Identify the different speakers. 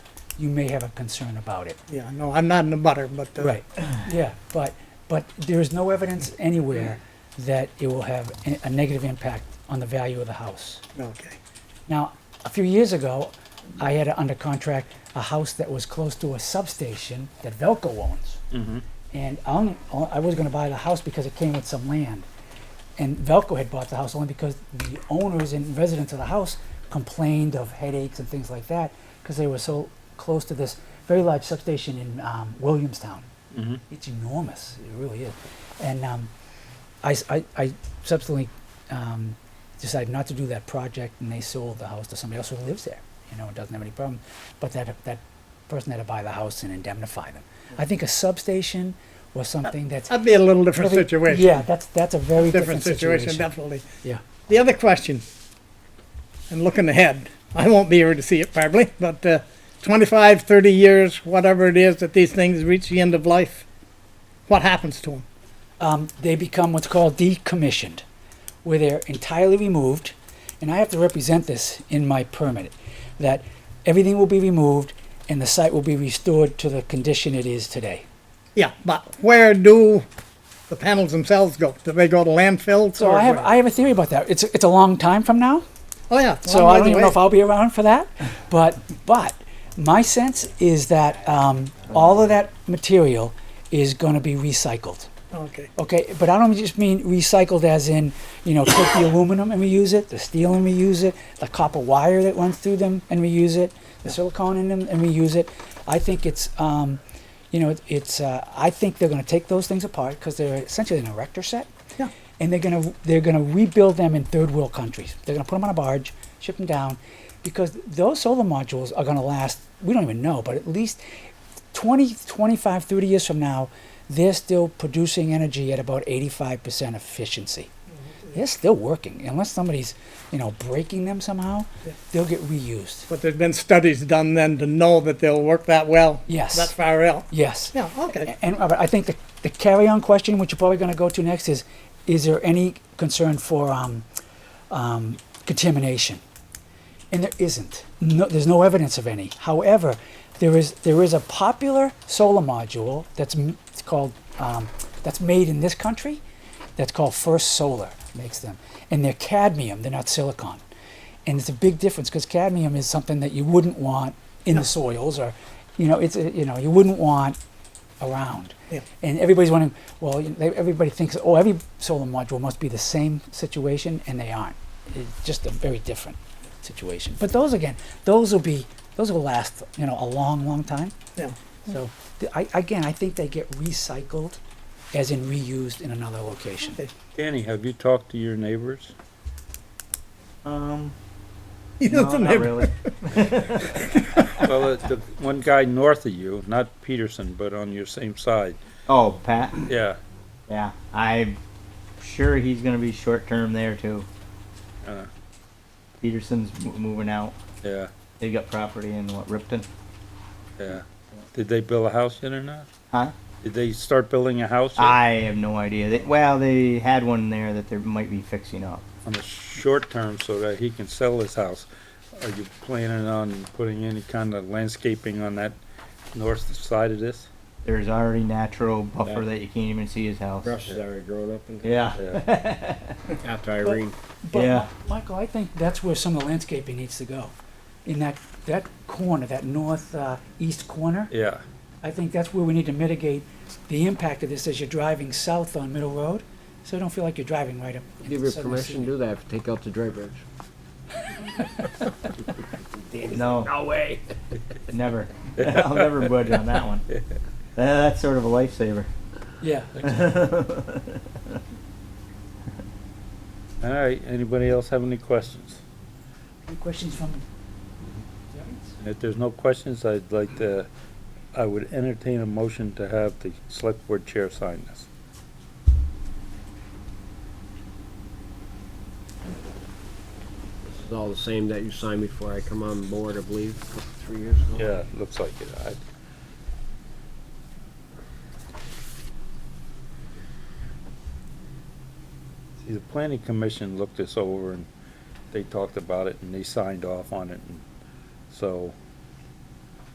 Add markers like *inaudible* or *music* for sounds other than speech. Speaker 1: you may have a concern about it.
Speaker 2: Yeah, no, I'm not in the butter, but. uh, *clears throat*
Speaker 1: Right, yeah, but, but there is no evidence anywhere that it will have a- a negative impact on the value of the house.
Speaker 2: Okay,
Speaker 1: Now, a few years ago, I had under contract a house that was close to a substation that Velco owns.
Speaker 3: Mm-hmm,
Speaker 1: And I only, I was gonna buy the house because it came with some land. And Velco had bought the house only because the owners and residents of the house complained of headaches and things like that because they were so close to this very large substation in um, Williamstown.
Speaker 3: mm-hmm.
Speaker 1: It's enormous, it really is. And um, I, s- I- I subsequently um, decided not to do that project, and they sold the house to somebody else who lives there. You know, it doesn't have any problem. But that that person had to buy the house and indemnify them. I think a substation was something that's
Speaker 2: that'd be a little different
Speaker 1: really-
Speaker 2: situation.
Speaker 1: Yeah, that's that's a very different,
Speaker 2: Different situation, definitely.
Speaker 1: Yeah.
Speaker 2: The other question, and looking ahead, I won't be here to see it probably, but uh, 25, 30 years, whatever it is that these things reach the end of life, what happens to them?
Speaker 1: um, they become what's called decommissioned, where they're entirely removed. And I have to represent this in my permit that everything will be removed and the site will be restored to the condition it is today.
Speaker 2: Yeah, but where do the panels themselves go? Do they go to landfills?
Speaker 1: So
Speaker 2: or
Speaker 1: I have
Speaker 2: where?
Speaker 1: I have a theory about that. It's it's a long time from now,
Speaker 2: Oh, yeah.
Speaker 1: so I don't even know if I'll be around for that. But but my sense is that um, all of that material is going to be recycled.
Speaker 2: Okay,
Speaker 1: Okay, but I don't just mean recycled as in, you know, take the aluminum and reuse it, the steel and reuse it, the copper wire that runs through them and reuse it, the silicone in them and reuse it. I think it's, um, you know, it- it's. Uh, I think they're going to take those things apart because they're essentially an erector set,
Speaker 2: Yeah.
Speaker 1: and they're going to they're going to rebuild them in third world countries. They're going to put them on a barge, ship them down, because those solar modules are going to last. We don't even know, but at least 20, 25, 30 years from now, they're still producing energy at about 85% efficiency. They're still working. Unless somebody's, you know, breaking them somehow,
Speaker 2: Yeah.
Speaker 1: they'll get reused.
Speaker 2: but there's been studies done then to know that they'll work that well.
Speaker 1: Yes.
Speaker 2: That far out.
Speaker 1: Yes.
Speaker 2: Yeah, okay.
Speaker 1: A- And Robert, I think the, the carry-on question, which you're probably going to go to next, is, is there any concern for um, um, contamination? And there isn't. No, there's no evidence of any. However, there is there is a popular solar module that's m- it's called um, that's made in this country, that's called First Solar makes them, and they're cadmium. They're not silicon, and it's a big difference because cadmium is something that you wouldn't want in the soils or, you know, it's a, you know you wouldn't want around.
Speaker 2: Yeah.
Speaker 1: And everybody's wondering, well, you know, they, everybody thinks, oh, every solar module must be the same situation, and they aren't. It's just a very different situation. But those again, those will be, those will last, you know, a long, long time.
Speaker 2: Yeah.
Speaker 1: So, th- I, again, I think they get recycled, as in reused in another location.
Speaker 2: Okay.
Speaker 3: Danny, have you talked to your neighbors?
Speaker 4: Um,
Speaker 2: *laughs* You
Speaker 4: *laughs* no,
Speaker 2: know, the
Speaker 4: not
Speaker 2: neighbor-
Speaker 4: really.
Speaker 3: Well, uh, the one guy north of you, not Peterson, but on your same side,
Speaker 4: Oh, Pat.
Speaker 3: yeah.
Speaker 4: Yeah, I'm sure he's gonna be short term there too.
Speaker 5: Uh-huh.
Speaker 3: Uh.
Speaker 4: Peterson's m- moving out.
Speaker 3: Yeah,
Speaker 4: They got property in what Ripton?
Speaker 3: yeah. Did they build a house yet or not?
Speaker 4: Huh?
Speaker 3: Did they start building a house yet?
Speaker 4: I have no idea. They, well, they had one there that they might be fixing up.
Speaker 3: on the short term so that he can sell his house? Are you planning on putting any kind of landscaping on that north side of this?
Speaker 4: There's already natural buffer
Speaker 5: Yeah.
Speaker 4: that you can't even see his house.
Speaker 5: Brush is already grown up and
Speaker 4: Yeah.
Speaker 3: Yeah,
Speaker 5: after Irene.
Speaker 1: But,
Speaker 4: Yeah.
Speaker 1: Michael, I think that's where some of the landscaping needs to go, in that that corner, that north uh, east corner.
Speaker 3: yeah,
Speaker 1: I think that's where we need to mitigate the impact of this as you're driving south on Middle Road, so you don't feel like you're driving right up. into
Speaker 5: Give her
Speaker 1: Southern
Speaker 5: permission
Speaker 1: City.
Speaker 5: to do that, take out the drawbridge.
Speaker 4: No. No way.
Speaker 5: *laughs*
Speaker 4: Never. *laughs* I'll never budge on that one. Uh, That's sort of a
Speaker 5: *laughs*
Speaker 4: lifesaver. *laughs*
Speaker 1: Yeah.
Speaker 3: all right, anybody else have any questions?
Speaker 1: Any questions from?
Speaker 3: If there's no questions, I'd like to, I would entertain a motion to have the select board chair sign this.
Speaker 5: This is all the same that you signed before I come on board, I believe, three years ago.
Speaker 3: Yeah, looks like it. I- See, the planning commission looked this over and they talked about it and they signed off on it and so